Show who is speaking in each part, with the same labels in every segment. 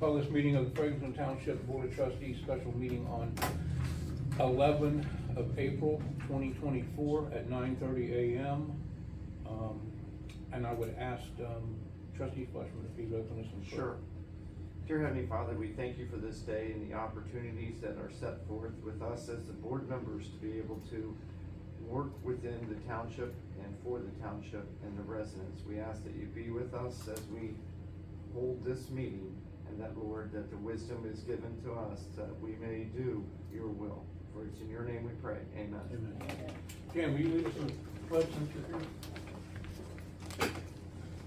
Speaker 1: Call this meeting of the Ferguson Township Board of Trustees special meeting on eleven of April twenty twenty-four at nine thirty AM. Um, and I would ask, um, trustee Fleshman if he'd open us in prayer.
Speaker 2: Sure. Dear Heavenly Father, we thank you for this day and the opportunities that are set forth with us as the board members to be able to work within the township and for the township and the residents. We ask that you be with us as we hold this meeting and that, Lord, that the wisdom is given to us that we may do your will. For it's in your name we pray. Amen.
Speaker 1: Amen. Jan, will you lead us in the pledge since you're here?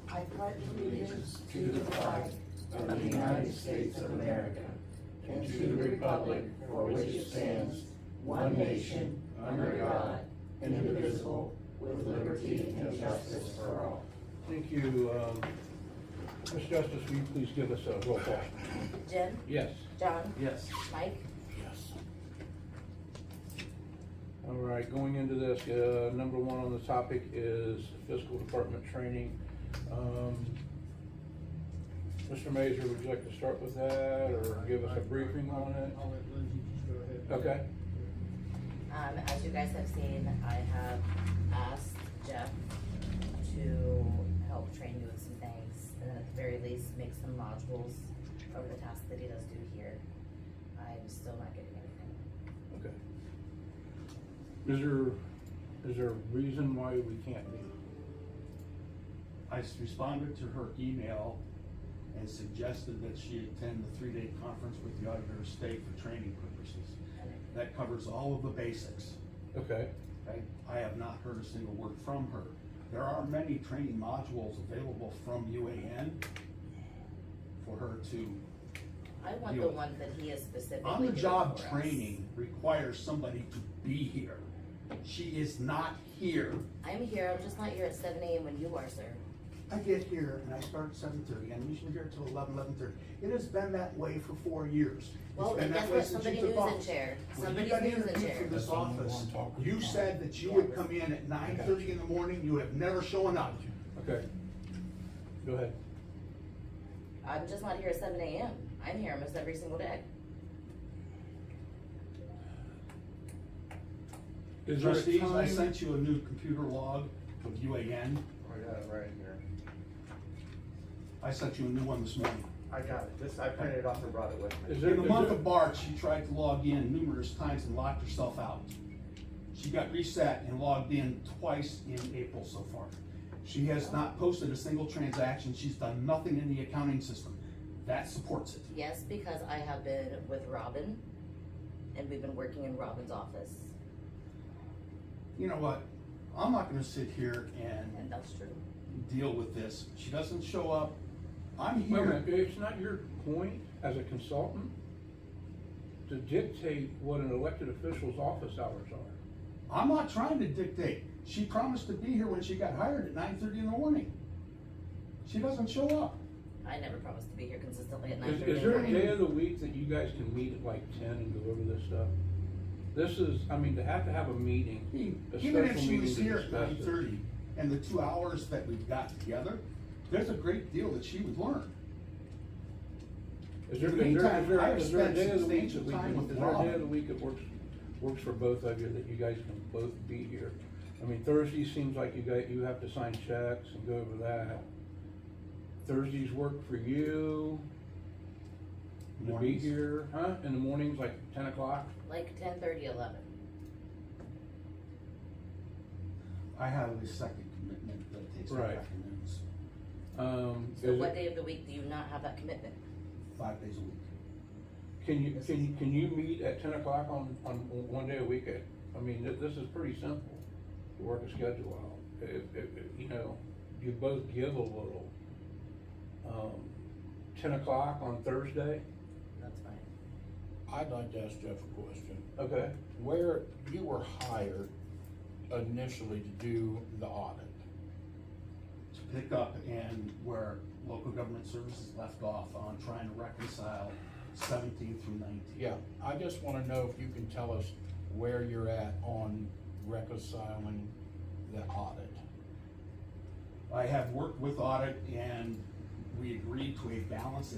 Speaker 3: I pledge allegiance to the flag of the United States of America and to the republic for which it stands, one nation, under God, indivisible, with liberty and justice for all.
Speaker 1: Thank you, um, Ms. Justice, will you please give us a roll call?
Speaker 4: Jim,
Speaker 1: Yes.
Speaker 4: John,
Speaker 2: Yes.
Speaker 4: Mike,
Speaker 1: Yes. All right, going into this, uh, number one on the topic is fiscal department training. Um, Mr. Mazur, would you like to start with that or give us a briefing on
Speaker 5: I'll
Speaker 1: it?
Speaker 5: let Lindsay just go ahead.
Speaker 1: Okay.
Speaker 4: um, as you guys have seen, I have asked Jeff to help train you with some things, and at the very least, make some modules over the tasks that he does do here. I'm still not getting anything.
Speaker 1: Okay. Is there, is there a reason why we can't meet?
Speaker 6: I s- responded to her email and suggested that she attend the three-day conference with the auditor of state for training purposes. That covers all of the basics,
Speaker 1: Okay,
Speaker 6: okay? I have not heard a single word from her. There are many training modules available from UAN for her to,
Speaker 4: I want the
Speaker 6: You-
Speaker 4: one that he is specifically doing
Speaker 6: on-the-job
Speaker 4: for us.
Speaker 6: training requires somebody to be here. She is not here.
Speaker 4: I'm here, I'm just not here at seven AM when you are, sir.
Speaker 7: I get here and I start at seven thirty, I'm usually here till eleven, eleven thirty. It has been that way for four years. It's
Speaker 4: Well,
Speaker 7: been
Speaker 4: then
Speaker 7: that
Speaker 4: guess
Speaker 7: way
Speaker 4: what,
Speaker 7: since you
Speaker 4: somebody
Speaker 7: took
Speaker 4: news in
Speaker 7: office.
Speaker 4: chair,
Speaker 7: When you
Speaker 4: somebody
Speaker 7: got
Speaker 4: news in
Speaker 7: interviewed for
Speaker 4: chair.
Speaker 7: this office, you said that you would come in at nine thirty in the morning, you have never shown up.
Speaker 1: okay. Go ahead.
Speaker 4: I'm just not here at seven AM, I'm here almost every single day.
Speaker 1: Is there a
Speaker 6: Trustees, I
Speaker 1: time-
Speaker 6: sent you a new computer log with UAN.
Speaker 2: I got it right here.
Speaker 6: I sent you a new one this morning.
Speaker 2: I got it. This, I printed it off and brought it with me.
Speaker 1: Is there,
Speaker 6: In the
Speaker 1: is
Speaker 6: month
Speaker 1: there,
Speaker 6: of March, she tried to log in numerous times and locked herself out. She got reset and logged in twice in April so far. She has not posted a single transaction, she's done nothing in the accounting system. That supports it.
Speaker 4: Yes, because I have been with Robin and we've been working in Robin's office,
Speaker 6: You know what? I'm not gonna sit here
Speaker 4: and
Speaker 6: and
Speaker 4: that's true.
Speaker 6: deal with this. She doesn't show up. I'm
Speaker 1: wait a
Speaker 6: here.
Speaker 1: minute, it's not your point as a consultant to dictate what an elected official's office hours are.
Speaker 6: I'm not trying to dictate. She promised to be here when she got hired at nine thirty in the morning. She doesn't show up.
Speaker 4: I never promised to be here consistently at nine
Speaker 1: Is, is
Speaker 4: thirty in the
Speaker 1: there a day
Speaker 4: morning.
Speaker 1: of the week that you guys can meet at like ten and go over this stuff? This is, I mean, to have to have a meeting, a
Speaker 6: Even if
Speaker 1: special
Speaker 6: she
Speaker 1: meeting
Speaker 6: was
Speaker 1: to
Speaker 6: here at
Speaker 1: discuss
Speaker 6: nine
Speaker 1: it.
Speaker 6: thirty and the two hours that we've got together, there's a great deal that she would learn.
Speaker 1: Is there,
Speaker 6: In the
Speaker 1: is there, is
Speaker 6: meantime, I
Speaker 1: there,
Speaker 6: have
Speaker 1: is there a
Speaker 6: spent
Speaker 1: day of the week that
Speaker 6: substantial
Speaker 1: we
Speaker 6: time
Speaker 1: can,
Speaker 6: with
Speaker 1: is there a day
Speaker 6: Rob.
Speaker 1: of the week that works, works for both of you, that you guys can both be here? I mean, Thursday seems like you got, you have to sign checks and go over that. Thursdays work for you, to be
Speaker 6: Mornings.
Speaker 1: here, huh, in the mornings, like ten o'clock?
Speaker 4: Like ten thirty, eleven.
Speaker 6: I have a second commitment that takes my
Speaker 1: Right.
Speaker 6: afternoons,
Speaker 1: Um,
Speaker 4: So
Speaker 1: is
Speaker 4: what
Speaker 1: it-
Speaker 4: day of the week do you not have that commitment?
Speaker 6: five days a week.
Speaker 1: Can you, can you, can you meet at ten o'clock on, on one day a week? I mean, thi- this is pretty simple, to work a schedule out. If, if, if, you know, you both give a little. Um, ten o'clock on Thursday,
Speaker 4: That's fine.
Speaker 8: I'd like to ask Jeff a question.
Speaker 1: okay,
Speaker 8: Where you were hired initially to do the audit,
Speaker 6: to pick up and where local government services left off on trying to reconcile seventeen through nineteen.
Speaker 8: yeah, I just wanna know if you can tell us where you're at on reconciling the audit.
Speaker 6: I have worked with audit and we agreed to a balance